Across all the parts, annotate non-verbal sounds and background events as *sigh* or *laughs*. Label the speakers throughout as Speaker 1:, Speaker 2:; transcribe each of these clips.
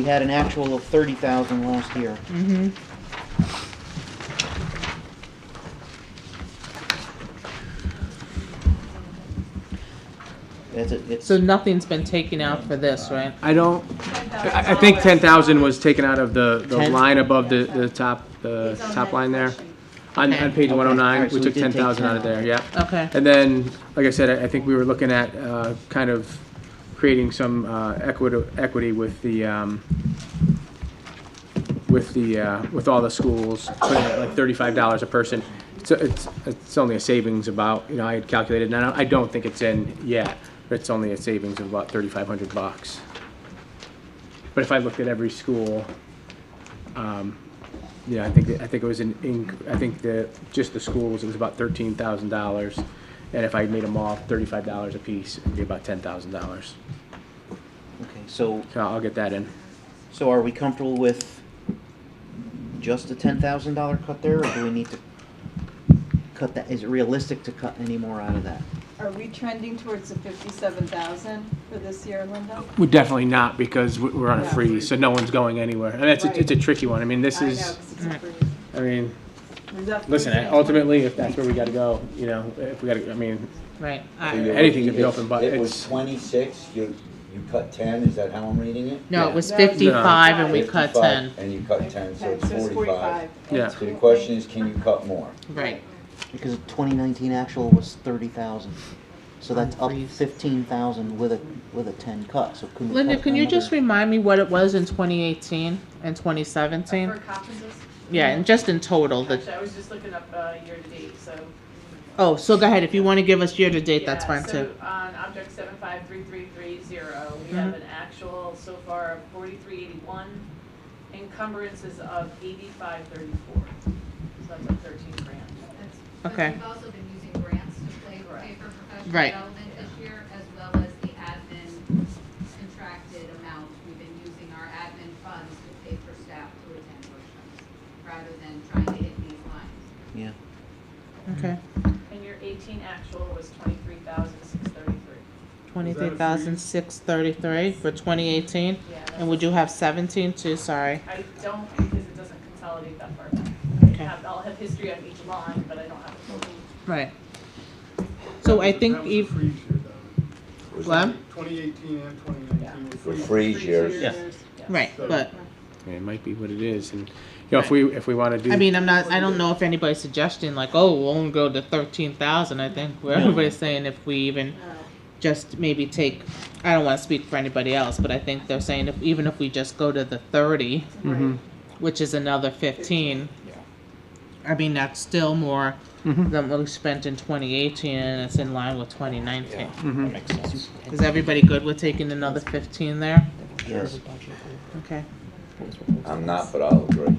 Speaker 1: We had an actual of thirty thousand last year.
Speaker 2: Mm-hmm.
Speaker 1: That's it, it's,
Speaker 2: So nothing's been taken out for this, right?
Speaker 3: I don't, I, I think ten thousand was taken out of the, the
Speaker 1: Ten?
Speaker 3: line above the, the top, the top line there. On, on page
Speaker 1: Okay.
Speaker 3: one oh nine,
Speaker 1: Alright, so
Speaker 3: we
Speaker 1: we
Speaker 3: took
Speaker 1: did
Speaker 3: ten
Speaker 1: take
Speaker 3: thousand out of
Speaker 1: 10.
Speaker 3: there, yeah.
Speaker 2: Okay.
Speaker 3: And then, like I said, I, I think we were looking at, uh, kind of creating some, uh, equity, equity with the, um, with the, uh, with all the schools, putting it like thirty-five dollars a person. So it's, it's only a savings about, you know, I had calculated, and I don't, I don't think it's in yet, but it's only a savings of about thirty-five hundred bucks. But if I looked at every school, um, yeah, I think, I think it was an, inc- I think the, just the schools, it was about thirteen thousand dollars. And if I made them all thirty-five dollars apiece, it'd be about ten thousand dollars.
Speaker 1: okay, so,
Speaker 3: So I'll get that in.
Speaker 1: so are we comfortable with just the ten thousand dollar cut there, or do we need to cut that, is it realistic to cut any more out of that?
Speaker 4: Are we trending towards the fifty-seven thousand for this year, Linda?
Speaker 3: We're definitely not because we- we're on a
Speaker 4: Yeah.
Speaker 3: freeze, so no one's going anywhere. And it's, a- it's a tricky one. I mean, this
Speaker 4: I know,
Speaker 3: is,
Speaker 4: 'cause it's a freeze.
Speaker 3: I mean,
Speaker 4: Is that
Speaker 3: listen,
Speaker 4: freezing?
Speaker 3: ultimately, if that's where we gotta go, you know, if we gotta, I mean,
Speaker 2: Right.
Speaker 5: So
Speaker 2: I-
Speaker 5: you're
Speaker 3: Anything could be
Speaker 5: looking-
Speaker 3: open, but
Speaker 5: It was
Speaker 3: it's-
Speaker 5: twenty-six, you, you cut ten, is that how I'm reading it?
Speaker 2: No, it was
Speaker 4: No.
Speaker 2: fifty-five and we cut
Speaker 5: 55,
Speaker 2: ten.
Speaker 5: And you cut ten, so it's
Speaker 4: So it's
Speaker 5: forty-five.
Speaker 4: and
Speaker 3: Yeah.
Speaker 5: So the question is, can you cut more?
Speaker 2: Right.
Speaker 1: Because twenty nineteen actual was thirty thousand, so that's up
Speaker 2: Freeze.
Speaker 1: fifteen thousand with a, with a ten cut, so can we
Speaker 2: Linda,
Speaker 1: cut
Speaker 2: can you just
Speaker 1: another-
Speaker 2: remind me what it was in twenty eighteen and twenty seventeen?
Speaker 6: For conferences?
Speaker 2: Yeah, and just in total,
Speaker 6: Actually,
Speaker 2: the,
Speaker 6: I was just looking up uh, year-to-date, so.
Speaker 2: oh, so go ahead, if you wanna give us year-to-date, that's
Speaker 6: Yeah,
Speaker 2: fine too. Mm-hmm.
Speaker 6: So on object seven five three three three zero, we have an actual so far of forty-three eighty-one, encumbrances of eighty-five thirty-four. So that's like thirteen grand.
Speaker 7: That's-
Speaker 2: Okay.
Speaker 7: But we've also been using grants to play, pay for professional
Speaker 2: Right.
Speaker 7: development this year, as well as the admin contracted amount. We've been using our admin funds to pay for staff to attend workshops, rather than trying to hit these lines.
Speaker 1: Yeah,
Speaker 2: Okay,
Speaker 4: Mm-hmm.
Speaker 6: And your eighteen actual was twenty-three thousand six thirty-three.
Speaker 2: twenty-three thousand six thirty-three for twenty eighteen,
Speaker 6: Yeah.
Speaker 2: and would you have seventeen too, sorry?
Speaker 6: I don't, because it doesn't consolidate that far back. I
Speaker 2: Okay.
Speaker 6: have- I'll have history on each line, but I don't have it.
Speaker 2: Right. So I think
Speaker 8: That was a
Speaker 2: if,
Speaker 8: freeze year, though.
Speaker 5: Was
Speaker 2: What?
Speaker 5: it-
Speaker 8: 2018 and 2019 were
Speaker 5: For
Speaker 8: freeze-
Speaker 5: freeze years,
Speaker 6: Yes.
Speaker 2: right, but,
Speaker 3: I mean, it might be what it is. And, you know, if we, if we wanna do.
Speaker 2: I mean, I'm not, I don't know if anybody's suggesting like, oh, we'll only go to thirteen thousand, I think, where everybody's saying if we even just maybe take, I don't wanna speak for anybody else, but I think they're saying if, even if we just go to the thirty,
Speaker 3: Mhm.
Speaker 2: which is another fifteen. I mean, that's still more
Speaker 3: Mhm.
Speaker 2: than what we spent in twenty eighteen, and it's in line with twenty nineteen.
Speaker 3: Mhm.
Speaker 2: Is everybody good with taking another fifteen there?
Speaker 1: yes.
Speaker 2: Okay.
Speaker 5: I'm not, but I'll agree.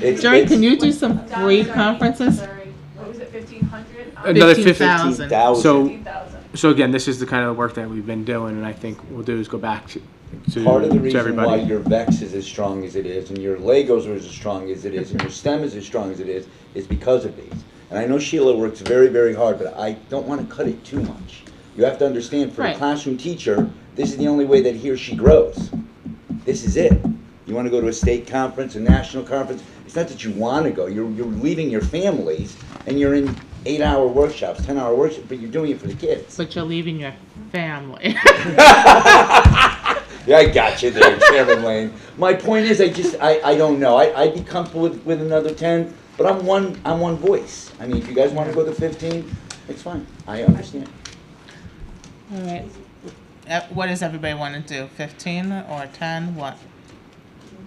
Speaker 5: It's-
Speaker 2: Jerry,
Speaker 5: it's
Speaker 2: can you do some free conferences?
Speaker 6: Sorry, what was it, fifteen hundred? Um,
Speaker 3: Another fif-
Speaker 2: 15,000.
Speaker 5: 15,000.
Speaker 3: So-
Speaker 6: Fifteen thousand.
Speaker 3: So again, this is the kind of work that we've been doing, and I think we'll do is go back to, to
Speaker 5: Part of the
Speaker 3: to
Speaker 5: reason why
Speaker 3: everybody.
Speaker 5: your VEX is as strong as it is, and your Legos are as strong as it is, and your STEM is as strong as it is, is because of these. And I know Sheila works very, very hard, but I don't want to cut it too much. You have to understand, for a
Speaker 2: Right.
Speaker 5: classroom teacher, this is the only way that he or she grows. This is it. You want to go to a state conference, a national conference, it's not that you want to go, you're, you're leaving your families, and you're in eight-hour workshops, ten-hour workshops, but you're doing it for the kids.
Speaker 2: But you're leaving your family. *laughs*
Speaker 5: Yeah, I got you there, *laughs* Chairman Lane. My point is, I just, I, I don't know. I, I'd be comfortable with, with another ten, but I'm one, I'm one voice. I mean, if you guys wanna go to fifteen, it's fine. I understand.
Speaker 2: All right. Uh, What does everybody want to do? Fifteen or ten? What?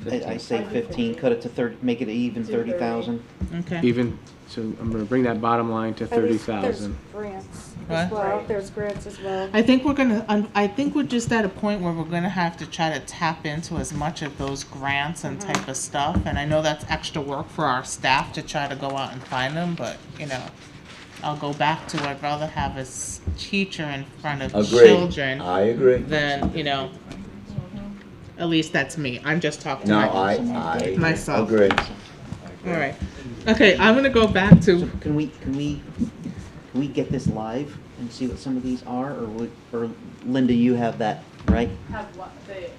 Speaker 1: *laughs* I, I say fifteen, cut it to thirty, make it even thirty thousand.
Speaker 2: Okay.
Speaker 3: Even, so I'm gonna bring that bottom line to
Speaker 9: And
Speaker 3: thirty
Speaker 9: there's-
Speaker 3: thousand.
Speaker 9: There's grants
Speaker 2: What?
Speaker 9: as well, there's grants as well.
Speaker 2: I think we're gonna. Um, I think we're just at a point where we're gonna have to try to tap into as much of those grants and type of stuff. And I know that's extra work for our staff to try to go out and find them, but you know, I'll go back to I'd rather have a s- teacher in front of
Speaker 5: Agree. Uh,
Speaker 2: children
Speaker 5: I agree.
Speaker 2: than you know. At least that's me. I'm just talking.
Speaker 5: No,
Speaker 2: my-
Speaker 5: I, I.
Speaker 2: Myself.
Speaker 5: Agree.
Speaker 2: All right. Okay, I'm gonna go back
Speaker 1: So
Speaker 2: to.
Speaker 1: can we, can we, can we get this live and see what some of these are, or would, or Linda, you have that right?
Speaker 6: have what, the